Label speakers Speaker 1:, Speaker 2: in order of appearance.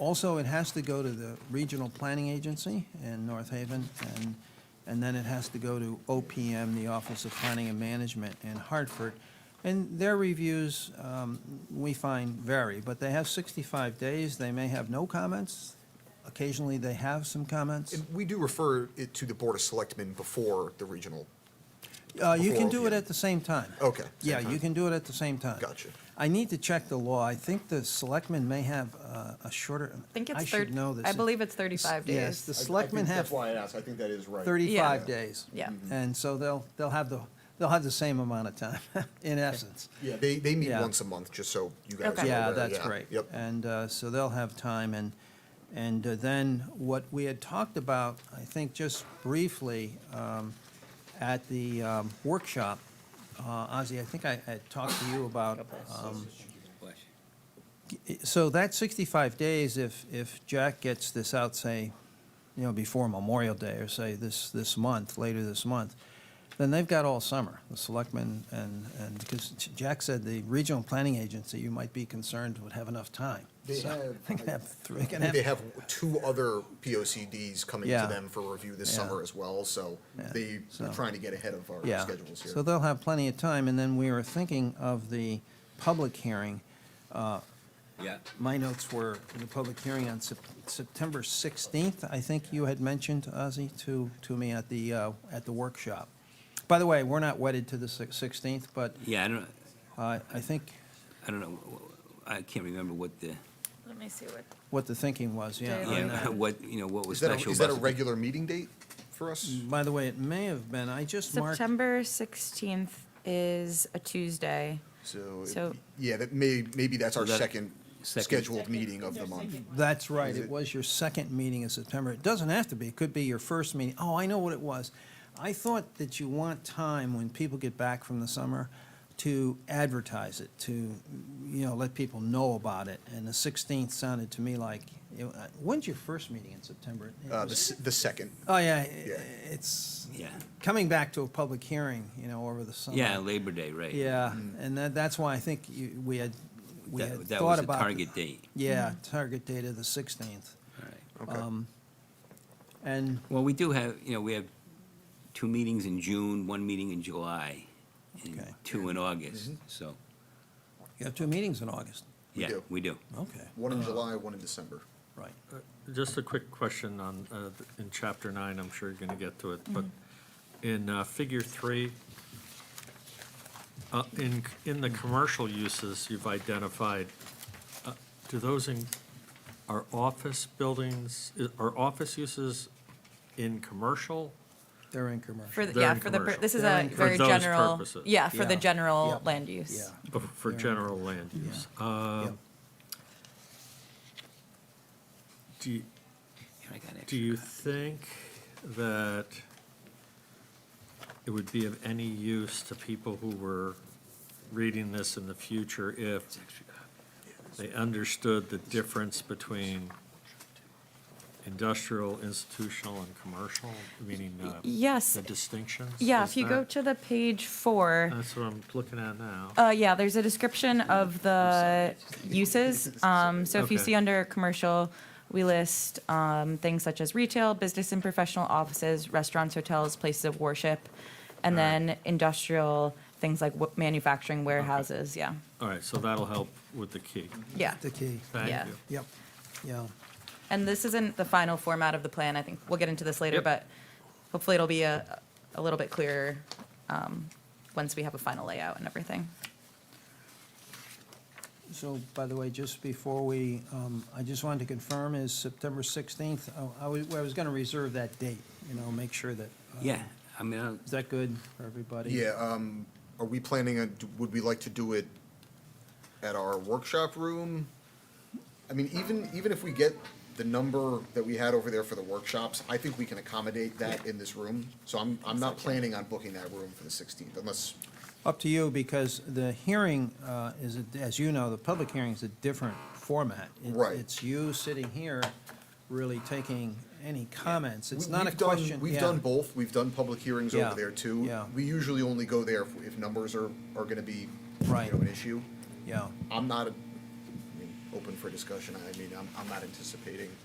Speaker 1: Also, it has to go to the Regional Planning Agency in North Haven, and, and then it has to go to OPM, the Office of Planning and Management in Hartford. And their reviews, um, we find vary, but they have 65 days. They may have no comments. Occasionally, they have some comments.
Speaker 2: And we do refer it to the Board of Selectmen before the regional,
Speaker 1: Uh, You can
Speaker 2: before
Speaker 1: do it
Speaker 2: OPM.
Speaker 1: at the same time.
Speaker 2: okay. same
Speaker 1: Yeah, you
Speaker 2: time.
Speaker 1: can do it at the same time.
Speaker 2: Gotcha.
Speaker 1: I need to check the law. I think the selectmen may have uh, a shorter,
Speaker 3: I think
Speaker 1: I
Speaker 3: it's
Speaker 1: should
Speaker 3: thirty,
Speaker 1: know this.
Speaker 3: I believe it's 35
Speaker 1: Yes, the
Speaker 3: days.
Speaker 4: I- I
Speaker 1: selectmen
Speaker 4: think
Speaker 1: have
Speaker 4: That's why I asked, I think that is right.
Speaker 1: 35
Speaker 3: Yeah.
Speaker 1: days.
Speaker 3: Yeah.
Speaker 1: And so they'll, they'll have the, they'll have the same amount of time, in essence.
Speaker 4: Yeah,
Speaker 2: They, they meet
Speaker 1: Yeah.
Speaker 2: once a month, just so you guys are
Speaker 3: Okay.
Speaker 1: Yeah,
Speaker 2: aware,
Speaker 1: that's great.
Speaker 2: Yep.
Speaker 1: And uh, so they'll have time, and, and uh, then what we had talked about, I think just briefly, um, at the um, workshop, uh, Ozzy, I think I had talked to you about, um, so that 65 days, if, if Jack gets this out, say, you know, before Memorial Day, or say this, this month, later this month, then they've got all summer, the selectmen and, and, because Jack said the regional planning agency, you might be concerned would have enough time.
Speaker 4: They
Speaker 1: So
Speaker 4: have-
Speaker 1: They can have three, they can
Speaker 2: They
Speaker 1: have,
Speaker 2: have two other POCDs coming
Speaker 1: Yeah.
Speaker 2: to them for review this
Speaker 1: Yeah.
Speaker 2: summer as well, so
Speaker 1: Yeah.
Speaker 2: they
Speaker 1: So-
Speaker 2: are trying to get ahead of our
Speaker 1: yeah.
Speaker 2: schedules here.
Speaker 1: So they'll have plenty of time, and then we were thinking of the public hearing. uh,
Speaker 5: Yeah,
Speaker 1: My notes were the public hearing on Sep- September 16th, I think you had mentioned, Ozzy, to, to me at the, uh, at the workshop. By the way, we're not wedded to the six- 16th, but
Speaker 5: yeah, I don't,
Speaker 1: uh, I think
Speaker 5: I don't know, I can't remember what the,
Speaker 3: Let me see what,
Speaker 1: what the thinking was, yeah.
Speaker 3: Dave.
Speaker 1: on
Speaker 5: yeah,
Speaker 1: that.
Speaker 5: what, you know, what was
Speaker 2: Is that, a-
Speaker 5: special
Speaker 2: is that a
Speaker 5: about it.
Speaker 2: regular meeting date for us?
Speaker 1: By the way, it may have been, I just marked,
Speaker 3: September 16th is a Tuesday.
Speaker 2: So,
Speaker 3: So-
Speaker 2: it- yeah, that may, maybe that's our
Speaker 5: So that-
Speaker 2: second
Speaker 5: second-
Speaker 2: scheduled meeting of the month.
Speaker 1: that's right,
Speaker 2: Is
Speaker 1: it
Speaker 2: it-
Speaker 1: was your second meeting in September. It doesn't have to be, it could be your first meeting. Oh, I know what it was. I thought that you want time when people get back from the summer to advertise it, to, you know, let people know about it. And the 16th sounded to me like, you know, uh, when's your first meeting in September? It
Speaker 2: Uh,
Speaker 1: was-
Speaker 2: the, s- the second,
Speaker 1: Oh, yeah,
Speaker 2: Yeah.
Speaker 1: it's
Speaker 5: Yeah,
Speaker 1: coming back to a public hearing, you know, over the
Speaker 2: Oh,
Speaker 1: summer.
Speaker 5: yeah, Labor Day, right.
Speaker 1: Yeah,
Speaker 2: Mm.
Speaker 1: and that, that's why I think you, we had, we had
Speaker 5: That that
Speaker 1: thought
Speaker 5: was the
Speaker 1: about.
Speaker 5: target date,
Speaker 1: Yeah,
Speaker 2: Mm.
Speaker 1: target date of the sixteenth.
Speaker 5: all right.
Speaker 2: okay.
Speaker 1: Um, And,
Speaker 5: Well, we do have, you know, we have two meetings in June, one meeting in July, and
Speaker 1: Okay.
Speaker 5: two in August, so,
Speaker 1: you have two meetings in August.
Speaker 2: Mm-hmm. We
Speaker 5: yeah,
Speaker 2: do.
Speaker 5: we do.
Speaker 1: Okay,
Speaker 2: one in July, one in December.
Speaker 1: right.
Speaker 6: Just a quick question on, uh, th- in chapter nine, I'm sure you're gonna get to it, but
Speaker 1: Mm-hmm.
Speaker 6: in uh, figure three, uh, in, in the commercial uses you've identified, uh, do those in, are office buildings, i- are office uses in commercial?
Speaker 1: They're in commercial.
Speaker 3: For, the-
Speaker 6: They're
Speaker 3: yeah,
Speaker 6: in
Speaker 3: for the, pur-
Speaker 6: commercial.
Speaker 3: this is
Speaker 1: They're
Speaker 3: a
Speaker 1: in
Speaker 3: very
Speaker 6: commercial. For those
Speaker 3: general,
Speaker 6: purposes.
Speaker 3: yeah, for the
Speaker 1: Yeah.
Speaker 3: general
Speaker 1: Yep.
Speaker 3: land use.
Speaker 1: Yeah, Um,
Speaker 6: Oh, For
Speaker 1: Yeah.
Speaker 6: general land use. Uh,
Speaker 1: yeah.
Speaker 6: Do you,
Speaker 5: And I got
Speaker 6: Do
Speaker 5: extra
Speaker 6: you
Speaker 5: copy.
Speaker 6: think that it would be of any use to people who were reading this in the future if
Speaker 5: It's extra copy.
Speaker 6: they understood the difference between industrial, institutional, and commercial, meaning uh,
Speaker 3: Yes.
Speaker 6: the distinctions?
Speaker 3: Yeah,
Speaker 6: Is
Speaker 3: if you go
Speaker 6: that-
Speaker 3: to the page four,
Speaker 6: That's what I'm looking at now.
Speaker 3: Uh, yeah, there's a description of the uses. Um, so if you
Speaker 6: Okay.
Speaker 3: see under commercial, we list, um, things such as retail, business and professional offices, restaurants, hotels, places of worship. And
Speaker 6: Alright.
Speaker 3: then industrial, things like wa- manufacturing warehouses, yeah,
Speaker 6: All right, so that'll help with the key.
Speaker 3: yeah.
Speaker 1: The key,
Speaker 3: Yeah.
Speaker 6: Thank you.
Speaker 1: yep, yeah.
Speaker 3: And this isn't the final format of the plan, I think, we'll get into this later,
Speaker 6: Yep.
Speaker 3: but hopefully it'll be a, a little bit clearer, um, once we have a final layout and everything.
Speaker 1: So, by the way, just before we, um, I just wanted to confirm is September sixteenth, I, I was, I was gonna reserve that date, you know, make sure that, uh,
Speaker 5: Yeah, I mean, I'll-
Speaker 1: is that good for everybody?
Speaker 2: Yeah, um, are we planning on, would we like to do it at our workshop room? I mean, even, even if we get the number that we had over there for the workshops, I think we can accommodate that in this room. So I'm, I'm not planning on booking that room for the sixteenth unless,
Speaker 1: Up to you, because the hearing uh, is, a- as you know, the public hearing is a different format. It-
Speaker 2: Right.
Speaker 1: It's you sitting here really taking any comments. It's
Speaker 2: We-
Speaker 1: not a
Speaker 2: we've done-
Speaker 1: question.
Speaker 2: We've
Speaker 1: yeah.
Speaker 2: done both, we've done public hearings
Speaker 1: Yeah,
Speaker 2: over there too.
Speaker 1: yeah.
Speaker 2: We usually only go there if, if numbers are, are gonna be, you
Speaker 1: Right.
Speaker 2: know, an issue.
Speaker 1: Yeah,
Speaker 2: I'm not, a- I mean, open for discussion. I mean, I'm, I'm not anticipating